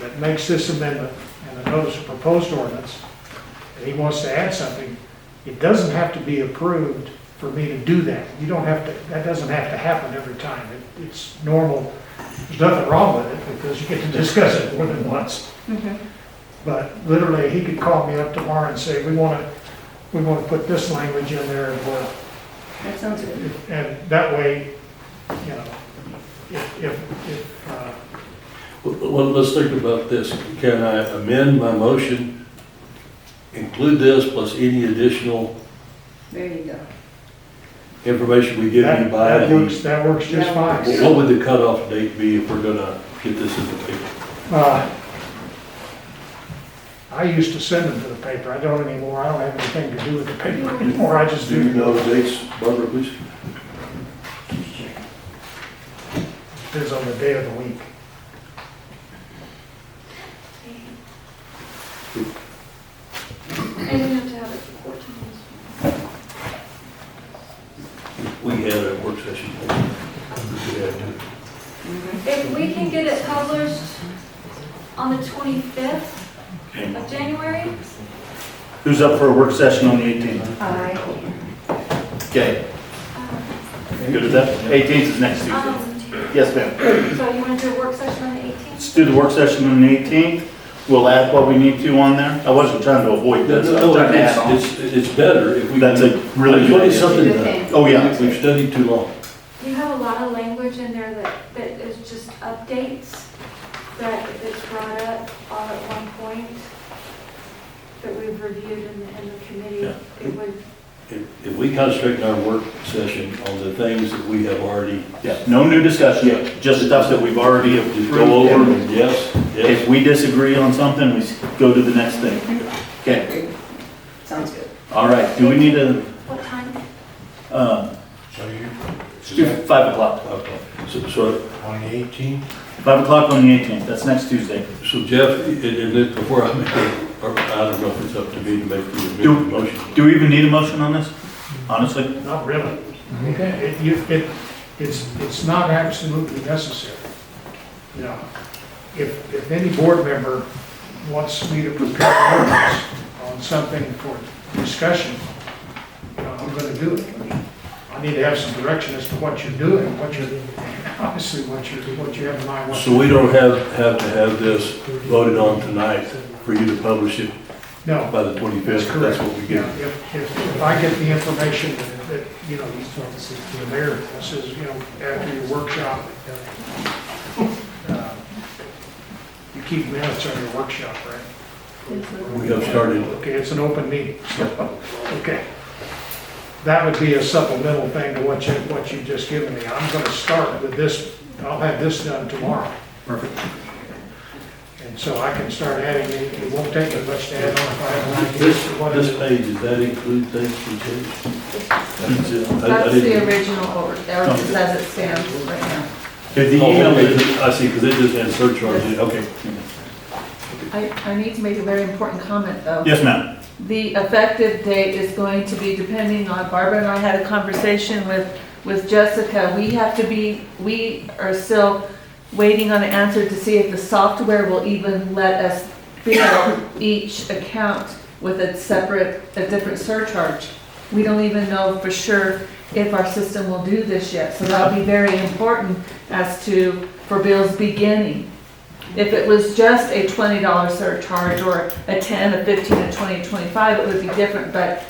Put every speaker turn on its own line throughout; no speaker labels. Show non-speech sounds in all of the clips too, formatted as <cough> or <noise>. that makes this amendment and the notice of proposed ordinance, and he wants to add something, it doesn't have to be approved for me to do that. You don't have to, that doesn't have to happen every time. It- It's normal. There's nothing wrong with it because you get to <laughs> discuss it more than once.
Mm-hmm.
But literally, he could call me up tomorrow and say, we want to, we want to put this language in there as well.
That sounds good.
And that way, you know, if, if, if, uh,
Well, well, let's think about this. Can I amend my motion, include this plus any additional
There you go.
information we give you
that,
by
that works,
the...
that works just
That
What
fine.
works.
what would the cutoff date be if we're gonna get this in the paper?
Uh, I used to send them to the paper, I don't anymore, I don't have anything to do with the paper anymore, I just
Do you
do,
know dates, Barbara, please?
depends on the day of the week.
And we have to have it for 14 days.
We had a work session. We had to-
If we can get it published on the 25th of January, uh,
Who's up for a work session on the 18th?
I,
Okay,
um,
good with that? 18th is next Tuesday.
um,
Yes, ma'am.
so you want to do a work session on the 18th?
Let's do the work session on the 18th. We'll add what we need to on there. I wasn't trying to avoid
No,
this. I
no,
was
no,
trying to add on.
it's, it's- it's better if we...
That's a really
What
good
is
idea.
something
Good
that
thing.
Oh, yeah.
we've studied too long?
You have a lot of language in there that, that is just updates that it's brought up all at one point that we've reviewed in, the- in the committee.
Yeah.
It would,
If if we concentrate our work session on the things that we have already...
Yeah, no new
Yeah.
discussion, just stuff that we've already
Just
approved.
go over and yes, yes.
If we disagree on something, we s- go to the next thing. Okay,
sounds good.
all right. Do we need a,
what time?
uh,
So you,
do 5 o'clock?
Okay. So, so,
on the 18th,
5 o'clock on the 18th, that's next Tuesday.
so Jeff, and, and then before I make, a- or I don't know if it's up to me to make the
Do-
amended motion.
Do we even need a motion on this? Honestly?
Not really. It, you, it, it's, it's not absolutely necessary. You know, if, if any board member wants me to prepare an ordinance on something for discussion, you know, I'm gonna do it. I need to have some direction as to what you're doing, what you're, <laughs> obviously, what you're, what you have in mind. what-
So we don't have, have to have this voted on tonight for you to publish it
No.
by the twenty-fifth? That's what we
Yeah,
get.
if, if, if I get the information that- that, you know, the mayor says, you know, after your workshop, uh, <laughs> you keep minutes on your workshop, right?
We have started,
Okay, it's an open meeting, so, okay. That would be a supplemental thing to what you, what you've just given me. I'm gonna start with this, I'll have this done tomorrow.
Perfect.
And so I can start adding, it It won't take that much to add on if I have an idea.
this,
for what it is.
this page, does that include things we changed? That's it. I- I
That's
didn't-
the original order, that was as it stands right now.
Did the
Oh,
email
okay, I see, because it just had surcharge, in it. okay.
I, I need to make a very important comment, though.
Yes, ma'am.
The effective date is going to be depending on, Barbara and I had a conversation with, with Jessica. We have to be, we are still waiting on an answer to see if the software will even let us bill each account with a separate, a different surcharge. We don't even know for sure if our system will do this yet, so that'll be very important as to, for bills beginning. If it was just a twenty dollar surcharge or a ten, a fifteen, a twenty, a twenty-five, it would be different, but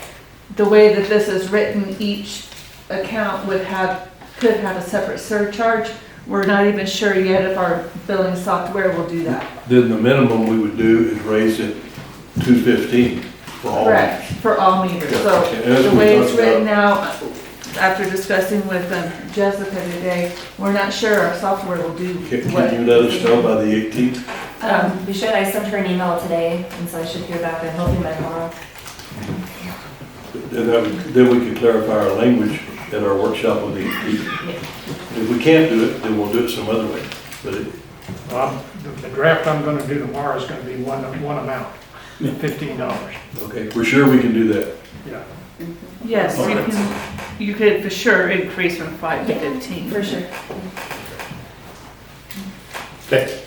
the way that this is written, each account would have, could have a separate surcharge. We're not even sure yet if our billing software will do that.
Then the minimum we would do is raise it two fifteen for all.
Correct, for all meters, so
Oh. Yeah, and as
the
we
way it's
talked about-
written now, after discussing with um, Jessica today, we're not sure our software will do
Can
what.
can you let us know by the eighteenth?
Um,
Um, we should, I sent her an email today, and so I should hear back, I'm hoping by tomorrow.
Then that would- then we could clarify our language at our workshop on the eighteenth. If we can't do it, then we'll do it some other way. But it-
Well, the the draft I'm gonna do tomorrow is gonna be one, one amount, fifteen dollars.
okay, we're sure we can do that.
Yeah,
Yes, you can, you could for sure increase from five to fifteen.
sure.
Okay.